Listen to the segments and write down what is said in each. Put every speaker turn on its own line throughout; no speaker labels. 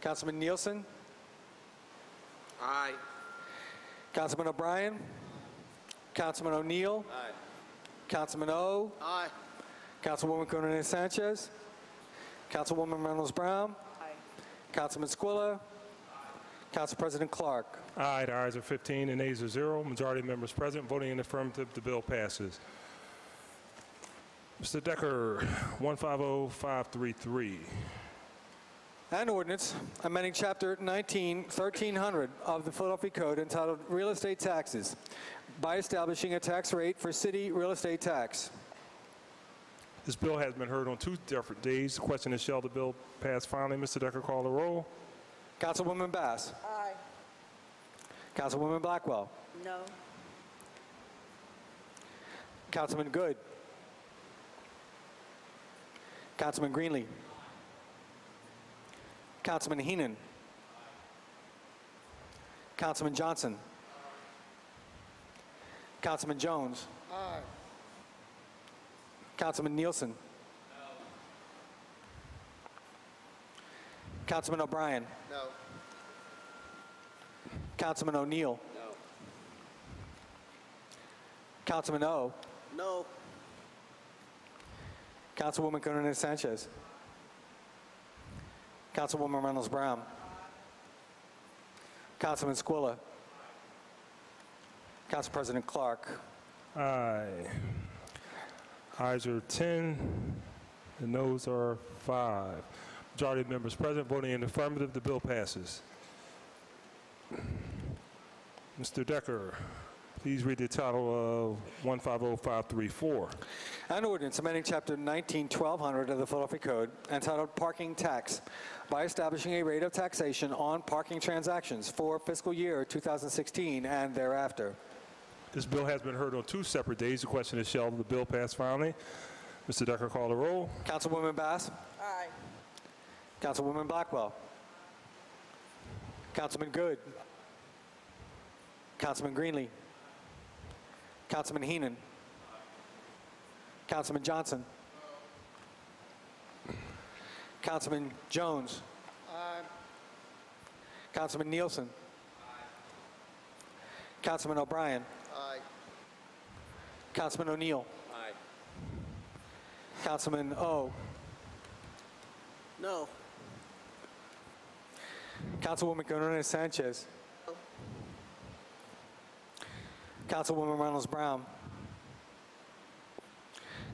Councilman Nielsen?
Aye.
Councilman O'Brien? Councilman O'Neill?
Aye.
Councilman O?
Aye.
Councilwoman Gunnarina Sanchez? Councilwoman Reynolds Brown? Councilman Squilla? Council President Clark?
Aye, the ayes are 15 and nays are 0. Majority of members present voting in affirmative, the bill passes. Mr. Decker, oh, 150533.
An ordinance amending Chapter 19, 1300 of the Philadelphia Code entitled Real Estate Taxes by establishing a tax rate for city real estate tax.
This bill has been heard on two different days. The question is, shall the bill pass finally? Mr. Decker, call the roll.
Councilwoman Bass.
Aye.
Councilwoman Blackwell.
No.
Councilman Good. Councilman Greenlee. Councilman Heenan. Councilman Johnson. Councilman Jones. Councilman Nielsen. Councilman O'Brien.
No.
Councilman O'Neill.
No.
Councilman O.
No.
Councilwoman Gunnarina Sanchez. Councilwoman Reynolds Brown. Councilman Squilla. Council President Clark.
Aye. Ayes are 10, and noes are 5. Majority of members present voting in affirmative, the bill passes. Mr. Decker, please read the title of 150534.
An ordinance amending Chapter 19, 1200 of the Philadelphia Code entitled Parking Tax by establishing a rate of taxation on parking transactions for fiscal year 2016 and thereafter.
This bill has been heard on two separate days. The question is, shall the bill pass finally? Mr. Decker, call the roll.
Councilwoman Bass.
Aye.
Councilwoman Blackwell. Councilman Good. Councilman Greenlee. Councilman Heenan. Councilman Johnson. Councilman Jones. Councilman Nielsen. Councilman O'Brien.
Aye.
Councilman O'Neill.
Aye.
Councilman O.
No.
Councilwoman Gunnarina Sanchez. Councilwoman Reynolds Brown.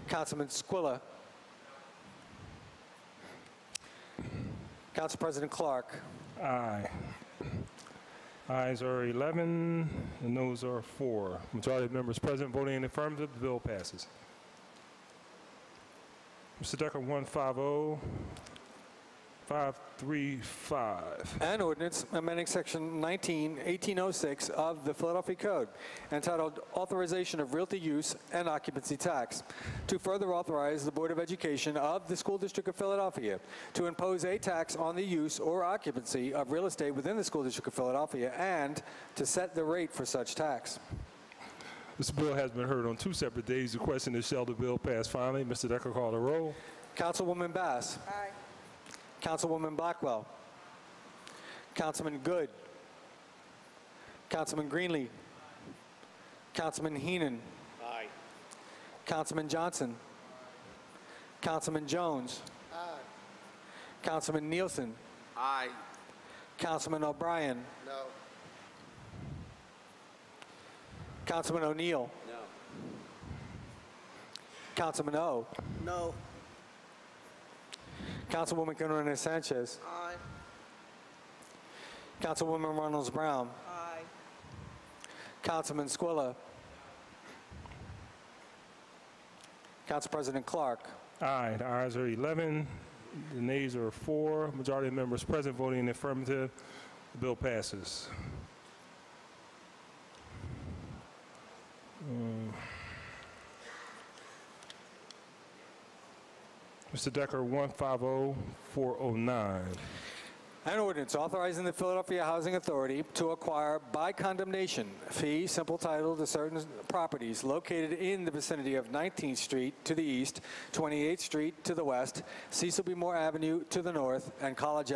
Councilman Squilla. Council President Clark.
Aye. Ayes are 11, and noes are 4. Majority of members present voting in the affirmative, the bill passes. Mr. Decker, oh, 150535.
An ordinance amending Section 19, 1806 of the Philadelphia Code entitled Authorization of Realty Use and Occupancy Tax to further authorize the Board of Education of the School District of Philadelphia to impose a tax on the use or occupancy of real estate within the School District of Philadelphia and to set the rate for such tax.
This bill has been heard on two separate days. The question is, shall the bill pass finally? Mr. Decker, call the roll.
Councilwoman Bass.
Aye.
Councilwoman Blackwell. Councilman Good. Councilman Greenlee. Councilman Heenan.
Aye.
Councilman Johnson. Councilman Jones. Councilman Nielsen.
Aye.
Councilman O'Brien.
No.
Councilman O'Neill.
No.
Councilman O.
No.
Councilwoman Gunnarina Sanchez.
Aye.
Councilwoman Reynolds Brown.
Aye.
Councilman Squilla. Council President Clark.
Aye. The ayes are 11, the nays are 4. Majority of members present voting in the affirmative, the bill passes. Um, Mr. Decker, oh, 150409.
An ordinance authorizing the Philadelphia Housing Authority to acquire by condemnation fee simple title to certain properties located in the vicinity of 19th Street to the east, 28th Street to the west, Cecil B. Moore Avenue to the north, and College